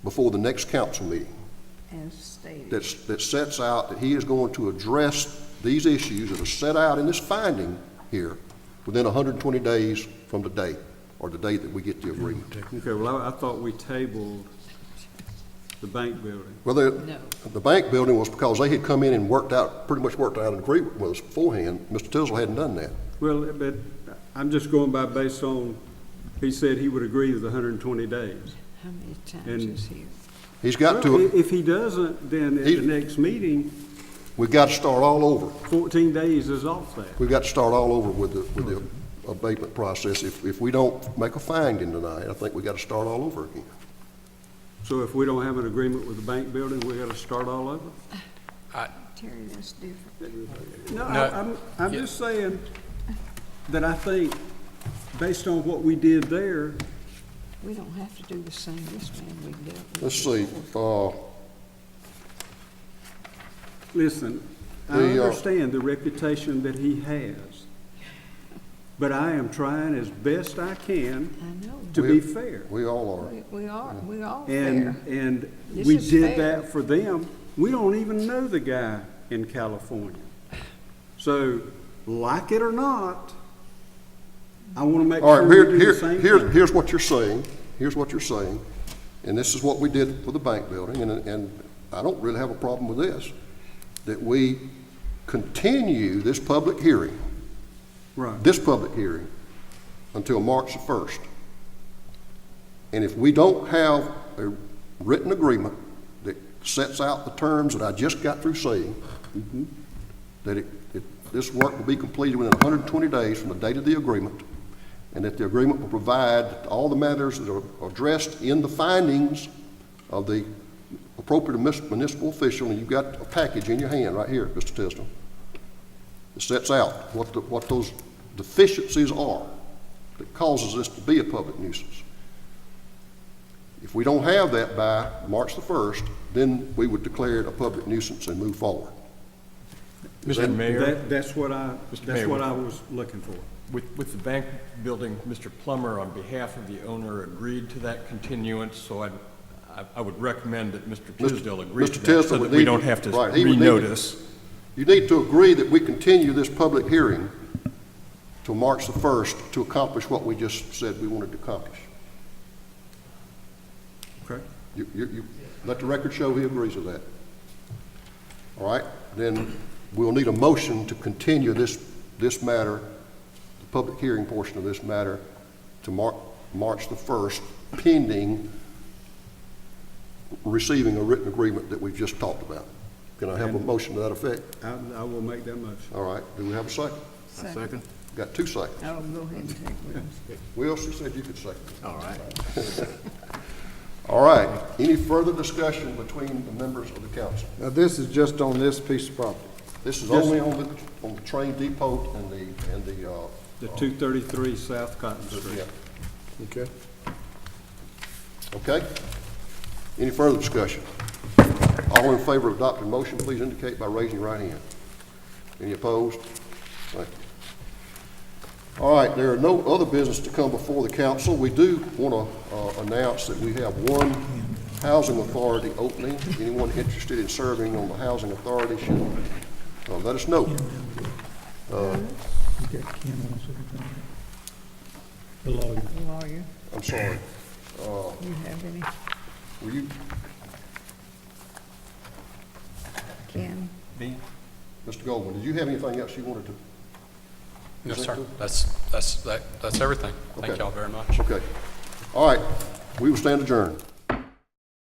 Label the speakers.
Speaker 1: before the next council meeting
Speaker 2: as stated.
Speaker 1: that's, that sets out that he is going to address these issues that are set out in this finding here within 120 days from today, or the day that we get the agreement.
Speaker 3: Okay, well, I, I thought we tabled the bank building.
Speaker 1: Well, the, the bank building was because they had come in and worked out, pretty much worked out an agreement with us beforehand. Mr. Tisdale hadn't done that.
Speaker 3: Well, but I'm just going by based on, he said he would agree with hundred and twenty days.
Speaker 2: How many times
Speaker 3: And-
Speaker 2: is he?
Speaker 1: He's got
Speaker 3: Well,
Speaker 1: to,
Speaker 3: i- If he doesn't, then at
Speaker 1: He-
Speaker 3: the next meeting,
Speaker 1: we've got to start all over.
Speaker 3: fourteen days is off that.
Speaker 1: We've got to start all over with the, with the abatement process. If, if we don't make a finding tonight, I think we got to start all over again.
Speaker 3: So if we don't have an agreement with the bank building, we gotta start all over?
Speaker 4: Uh,
Speaker 2: Terry, that's different.
Speaker 3: No,
Speaker 4: No.
Speaker 3: I- I'm, I'm
Speaker 4: Yeah.
Speaker 3: just saying that I think, based on what we did there,
Speaker 2: We don't have to do the same, this man we dealt with.
Speaker 1: Let's see, uh,
Speaker 3: Listen, I
Speaker 1: The, uh,
Speaker 3: understand the reputation that he has, but I am trying as best I can
Speaker 2: I know.
Speaker 3: to be fair.
Speaker 1: we all are.
Speaker 2: We- We are, we are
Speaker 3: And,
Speaker 2: fair.
Speaker 3: and
Speaker 2: This
Speaker 3: we
Speaker 2: is
Speaker 3: did
Speaker 2: fair.
Speaker 3: that for them. We don't even know the guy in California. So, like it or not, I want to make
Speaker 1: All
Speaker 3: sure
Speaker 1: right,
Speaker 3: we
Speaker 1: here,
Speaker 3: do the
Speaker 1: here,
Speaker 3: same
Speaker 1: here,
Speaker 3: thing.
Speaker 1: here's what you're saying, here's what you're saying, and this is what we did for the bank building, and, and I don't really have a problem with this, that we continue this public hearing,
Speaker 3: Right.
Speaker 1: this public hearing, until March the first. And if we don't have a written agreement that sets out the terms that I just got through saying, that it, it, this work will be completed within hundred and twenty days from the date of the agreement, and that the agreement will provide that all the matters that are addressed in the findings of the appropriate munis- municipal official, and you've got a package in your hand right here, Mr. Tisdale. It sets out what the, what those deficiencies are that causes this to be a public nuisance. If we don't have that by March the first, then we would declare it a public nuisance and move forward.
Speaker 4: Mr. Mayor,
Speaker 3: That, that's what I,
Speaker 4: Mr.
Speaker 3: that's
Speaker 4: Mayor,
Speaker 3: what
Speaker 4: we-
Speaker 3: I was looking for.
Speaker 4: with, with the bank building, Mr. Plummer, on behalf of the owner, agreed to that continuance, so I'd- I, I would recommend that Mr. Tisdale agree
Speaker 1: Mr.
Speaker 4: to that,
Speaker 1: Tisdale
Speaker 4: so
Speaker 1: would
Speaker 4: that we
Speaker 1: need-
Speaker 4: don't have to
Speaker 1: right, he would need to-
Speaker 4: renotice.
Speaker 1: You need to agree that we continue this public hearing till March the 1st to accomplish what we just said we wanted to accomplish.
Speaker 3: Okay?
Speaker 1: You, you, you, let the record show he agrees with that. All right, then we'll need a motion to continue this, this matter, the public hearing portion of this matter, to Mar- March the 1st, pending receiving a written agreement that we've just talked about. Can I have a motion to that effect?
Speaker 3: I, I will make that motion.
Speaker 1: All right, do we have a second?
Speaker 2: Second.
Speaker 1: Got two seconds.
Speaker 2: I'll go ahead and take Will's.
Speaker 1: Will, she said you could second. All right. All right. Any further discussion between the members of the council?
Speaker 5: Now, this is just on this piece of property.
Speaker 1: This is only on the, on the train depot and the, and the, uh,
Speaker 3: The two thirty-three South Cotton Street.
Speaker 1: yeah.
Speaker 5: Okay.
Speaker 1: Okay? Any further discussion? All in favor of adopting motion, please indicate by raising your right hand. Any opposed? Thank you. All right, there are no other business to come before the council. We do want to uh, announce that we have one housing authority opening. Anyone interested in serving on the housing authority should uh, let us know.
Speaker 6: The lawyer.
Speaker 2: Lawyer,
Speaker 1: I'm sorry,
Speaker 2: you have any?
Speaker 1: were you,
Speaker 2: Ken?
Speaker 1: Mr. Goldman, did you have anything else you wanted to?
Speaker 7: No,
Speaker 1: Is that
Speaker 7: sir.
Speaker 1: good?
Speaker 7: That's, that's, that- that's everything. Thank
Speaker 1: Okay.
Speaker 7: y'all very much.
Speaker 1: Okay. All right, we will stand adjourned.